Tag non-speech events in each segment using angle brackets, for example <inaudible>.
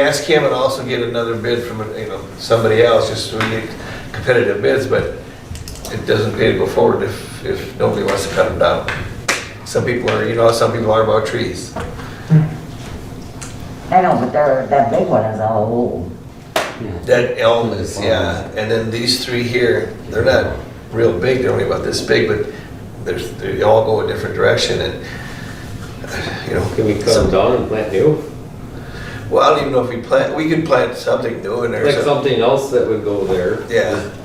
Ask him and also get another bid from, you know, somebody else, just so we get competitive bids, but it doesn't pay to go forward if, if nobody wants to cut them down. Some people are, you know, how some people are about trees. I know, but they're, that big one is all old. That elm is, yeah, and then these three here, they're not real big, they're only about this big, but there's, they all go a different direction and, you know. Can we cut them down and plant new? Well, I don't even know if we plant, we could plant something new in there. Like some- something else that would go there, Yeah.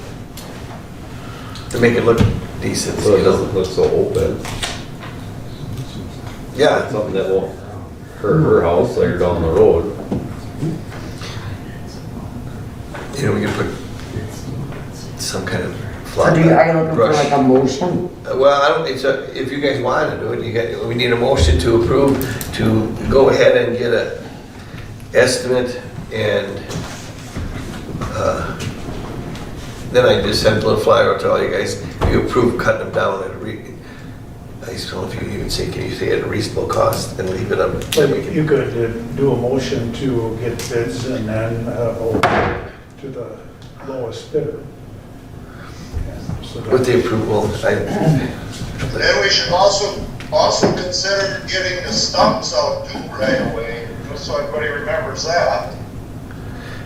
To make it look decent, so you it doesn't know? look so open. Yeah, Something that won't hurt her house later down the road. you know, we could put some kind of So flower do you, are you looking for like brush. a motion? Uh, Well, I don't, it's a, if you guys want to do it, you got, we need a motion to approve, to go ahead and get a estimate and, uh, then I just sent a little flyer out to all you guys, you approve cutting them down at a re, I just don't know if you can even say, can you say at a reasonable cost and leave it up? then we can- You could uh, do a motion to get bids and then uh, go to the lowest bidder. And so that- With the approval, I, Then we should also, also consider getting the stumps out due right away, just so everybody remembers that.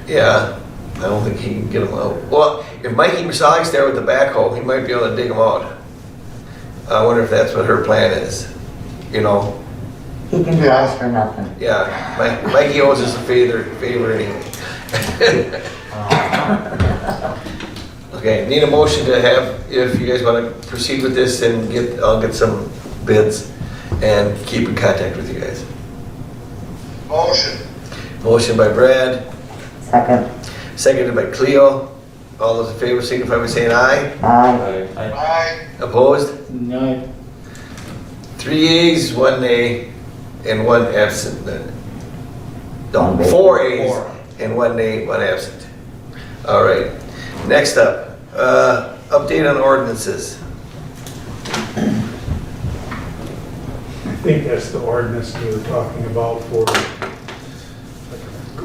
yeah, I don't think he can get them out. Well, if Mikey Masalik's there with the backhoe, he might be able to dig them out. I wonder if that's what her plan is, you know? He can do us for nothing. Yeah, Mi- Mikey owes us a favor, favor anyway. <laughs> Okay, need a motion to have, if you guys want to proceed with this and get, I'll get some bids and keep in contact with you guys. Motion. Motion by Brad. Second, Seconded by Cleo. All those in favor signify by saying aye. aye. I- Aye. Opposed? No, Three yeas, one nay, and one absent. No, four yeas and one nay, one absent. All right. Next up, uh, update on ordinances. I think that's the ordinance we were talking about for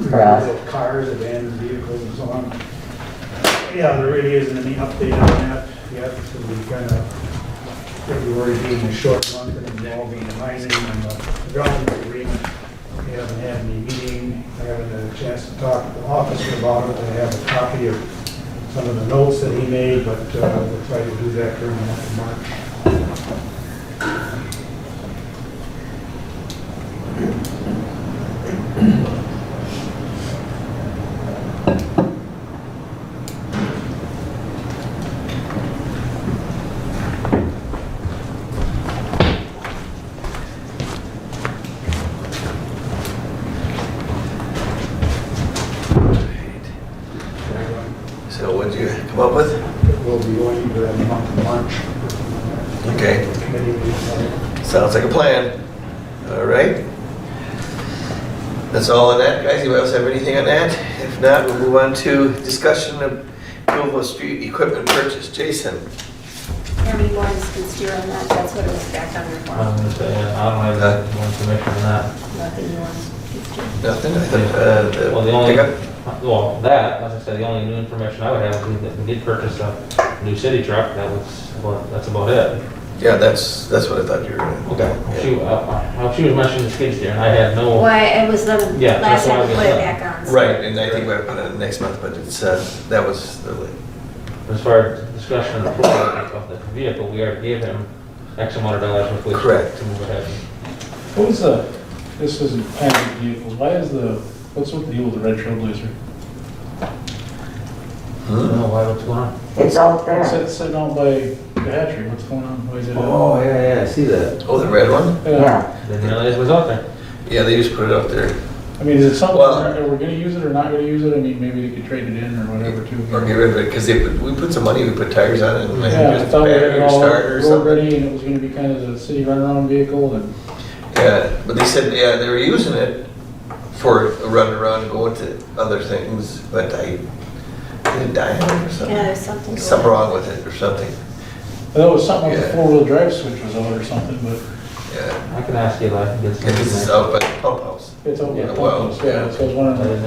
For us. like, cars, abandoned vehicles and so on. Yeah, there really isn't any update on that yet, so we kind of, February being a short month and involving mining and the development agreement. We haven't had any meeting, I haven't had a chance to talk to the officer about it, I have a copy of some of the notes that he made, but uh, we'll try to do that during the month of March. So what did you come up with? It will be going to that month of March. Okay, Committee meeting. sounds like a plan. All right. That's all on that, guys. Anybody else have anything on that? If not, we'll move on to discussion of Millville Street equipment purchase. Jason? How many lines can steer on that? That's what it was back on your I'm form. gonna say, I don't have more information on that. Nothing you want to do. Nothing, I thought, uh, the Well, the only, pickup? well, that, as I said, the only new information I would have is that we did purchase a new city truck, that was, well, that's about it. Yeah, that's, that's what I thought you were gonna. She, uh, uh, she was mentioning the skid steer, and I had no. Why, it was the Yeah, that's last why time I we was put it done. back on. so- Right, and I think we're put it next month, but it's, uh, that was the, li- As far as discussion and approval of the vehicle, we already gave him X amount of dollars with which Correct. to move ahead. What was the, this isn't padded vehicles, why is the, what's with the deal with the red trailblazer? I don't know why, what's going on? It's out there. It's sit- sitting out by the hatchery, what's going on, why is it? out? Oh, yeah, yeah, I see that. oh, the red one? Yeah, Didn't realize it was out there. Yeah, they just put it up there, I mean, is it something, Well- are we gonna use it or not gonna use it, I mean, maybe they could trade it in or whatever too. or get rid of it, because they, put- we put some money, we put tires on it, and I Yeah, I think just thought we had battery it or all starter or road something. ready and it was gonna be kind of the city runaround vehicle and, Yeah, but they said, yeah, they were using it for a run around, going to other things, but I, it died or something. Yeah, there's something. Something wrong with it or something, I thought it was something with the Yeah. four-wheel drive switch was on or something, but yeah. I can ask Eli if he gets Yeah, something. This is out by the pump house. it's over. Yeah, well, Yeah, so I was wondering. I didn't